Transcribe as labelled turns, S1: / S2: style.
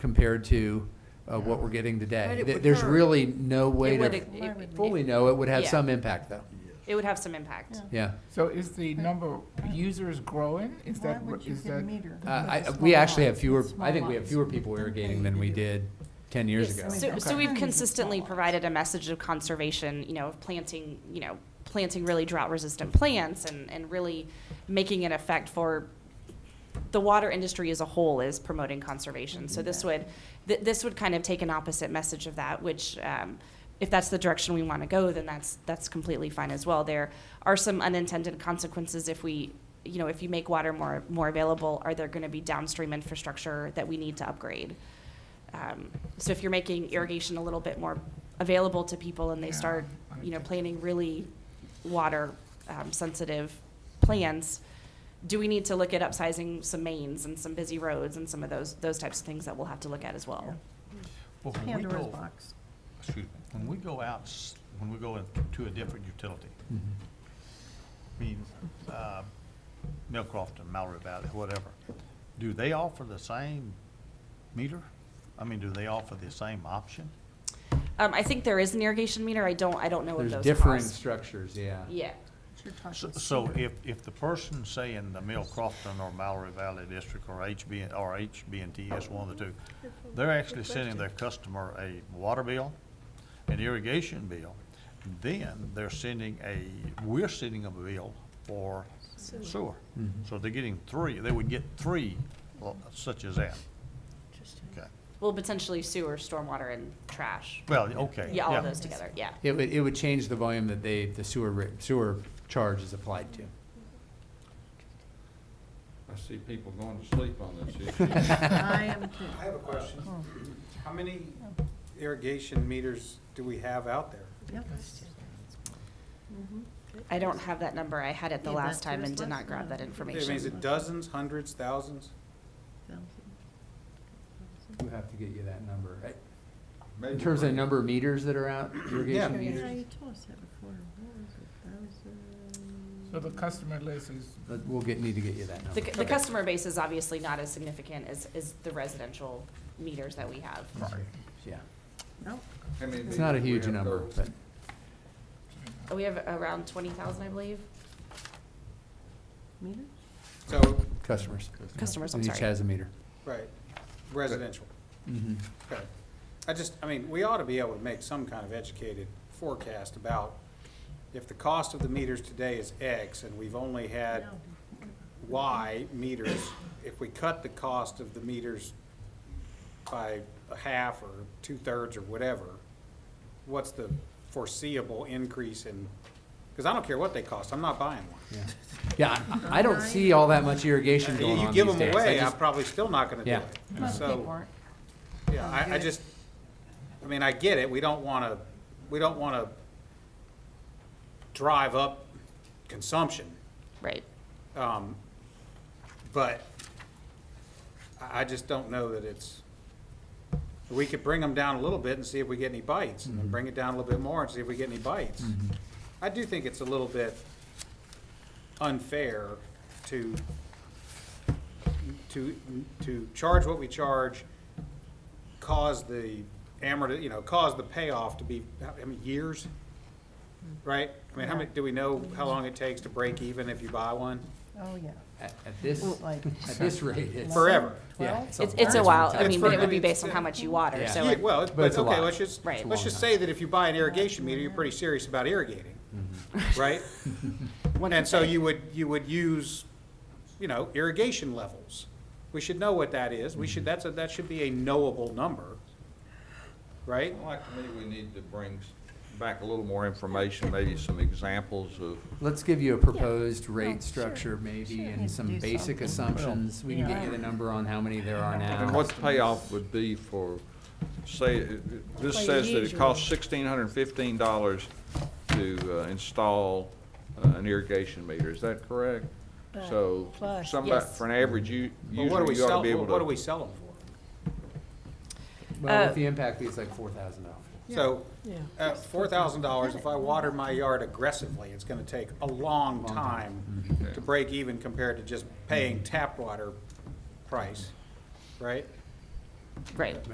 S1: compared to uh, what we're getting
S2: But
S1: today.
S2: it
S1: There-
S2: would
S1: There's
S2: hurt.
S1: really no way
S2: It would-
S1: to
S2: it- it-
S1: fully know. It would have
S2: Yeah.
S1: some impact, though.
S2: It would have some impact.
S1: Yeah.
S3: So is the number of users growing? Is
S4: Why
S3: that,
S4: would
S3: what-
S4: you
S3: is
S4: do
S3: that?
S4: meter?
S1: Uh, I, we actually have fewer, I think we have fewer people irrigating than we did 10 years ago.
S4: Yes.
S2: So, so
S3: Okay.
S2: we've consistently provided a message of conservation, you know, of planting, you know, planting really drought-resistant plants and, and really making an effect for the water industry as a whole is promoting conservation. So this would, th- this would kind of take an opposite message of that, which, um, if that's the direction we want to go, then that's, that's completely fine as well. There are some unintended consequences if we, you know, if you make water more, more available, are there going to be downstream infrastructure that we need to upgrade? Um, So if you're making irrigation a little bit more available to people and they
S3: Yeah,
S2: start, you know,
S3: okay.
S2: planting really water-sensitive plants, do we need to look at upsizing some mains and some busy roads and some of those, those types of things that we'll have to look at as well?
S5: Well, when we
S4: Pandora's
S5: go,
S4: box.
S5: excuse me, when we go out, s- when we go to a different utility,
S1: Mhm.
S5: I mean, uh, Millcroft and Mallory Valley, whatever, do they offer the same meter? I mean, do they offer the same option?
S2: Um, I think there is an irrigation meter. I don't, I don't know of
S1: There's
S2: those
S1: differing
S2: costs.
S1: structures, yeah.
S2: Yeah.
S4: You're
S5: So-
S4: talking
S5: So
S4: cedar.
S5: if, if the person, say, in the Millcrofton or Mallory Valley District or HB, or HB&T, it's one of the two, they're actually sending their customer a water bill, an irrigation bill, then they're sending a, we're sending them a bill for sewer.
S1: Mhm.
S5: So they're getting three, they would get three well, such as that. Okay.
S2: Well, potentially sewer, stormwater, and trash.
S5: Well, okay.
S2: Yeah, all of those together, yeah.
S1: It would, it would change the volume that they, the sewer, ra- sewer charge is applied to.
S6: I see people going to sleep on this issue.
S4: I am too.
S7: I have a question. How many irrigation meters do we have out there?
S4: Yep. Mm-hmm.
S2: I don't have that number. I had it the
S4: Yeah, back
S2: last
S4: to
S2: time
S4: us
S2: and did
S4: last
S2: not grab
S4: time.
S2: that
S4: Yeah,
S7: I mean, is
S2: information.
S7: it dozens, hundreds, thousands?
S1: We'll have to get you that number. right?
S6: Maybe
S1: In terms of
S6: three.
S1: number of meters that are out, irrigation
S7: Yeah.
S1: meters?
S3: So the customer list is,
S1: But We'll get, need to get you that
S2: The,
S1: number.
S2: the customer base is obviously not as significant as, as the residential meters that we have.
S1: Yeah.
S4: No,
S6: How many
S1: It's not a
S6: meters we
S1: huge
S6: have
S1: number,
S6: total?
S1: but
S2: We have around twenty thousand, I believe,
S4: meter?
S7: So,
S1: customers.
S2: customers, I'm
S1: And each
S2: sorry.
S1: has a meter.
S7: right, residential.
S1: Mhm.
S7: Okay. I just, I mean, we ought to be able to make some kind of educated forecast about if the cost of the meters today is X and we've only had Y meters, if we cut the cost of the meters by a half or two-thirds or whatever, what's the foreseeable increase in, because I don't care what they cost, I'm not buying one.
S1: Yeah. Yeah, I, I don't see all that much irrigation going
S7: You
S1: on
S7: give
S1: these
S7: them
S1: days. I
S7: away, I'm
S1: just-
S7: probably still not gonna do
S1: Yeah.
S7: it. So, yeah, I, I just, I mean, I get it, we don't wanna, we don't wanna drive up consumption,
S2: Right.
S7: um, but I, I just don't know that it's, we could bring them down a little bit and see if we get any bites, and then bring it down a little bit more and see if we get any bites. I do think it's a little bit unfair to, to, to charge what we charge, cause the amort, you know, cause the payoff to be, I mean, years, right? I mean, how many, do we know how long it takes to break even if you buy one?
S4: Oh, yeah.
S1: At at this,
S4: Well, like-
S1: at this rate, it's.
S7: Forever.
S1: Yeah,
S4: Well,
S1: it's
S2: It's, it's a
S1: long
S2: while,
S1: time.
S2: I
S7: It's
S2: mean, but it would be
S7: for-
S2: based on how much you water,
S1: Yeah.
S2: so.
S7: Yeah,
S2: it-
S7: well,
S1: But
S7: but
S1: it's a
S7: okay,
S1: lot.
S7: let's just,
S2: Right. It's a
S7: let's
S1: long
S7: just
S1: time.
S7: say that if you buy an irrigation meter, you're pretty serious about irrigating,
S1: Mm-hmm.
S7: right?
S2: one
S7: And
S2: could
S7: so
S2: say-
S7: you would, you would use, you know, irrigation levels. We should know what that is. We should, that's a, that should be a knowable number, right?
S6: Well, Like to me, we need to bring s- back a little more information, maybe some examples of,
S1: Let's give you a proposed rate
S4: Oh, sure.
S1: structure maybe
S4: Sure.
S1: and
S4: Need to
S1: some
S4: do
S1: basic
S4: something.
S1: assumptions. We can get you the
S4: Yeah.
S1: number on how many there are now.
S6: and what the payoff would be for, say, it- it- this says that it costs sixteen hundred and fifteen dollars to uh, install uh, an irrigation meter, is that correct? So, somebody,
S2: Yes.
S6: for an average u-
S7: But what do
S6: user,
S7: we
S6: you ought
S7: sell,
S6: to be able to.
S7: what do we sell them for?
S1: Well,
S2: Uh,
S1: with the impact fee, it's like four thousand dollars.
S7: So, at Uh, four thousand dollars, if I water my yard aggressively, it's gonna take a long time Mm-hmm.
S6: Mhm.
S7: to break even compared to just paying tap water price, right?
S2: right.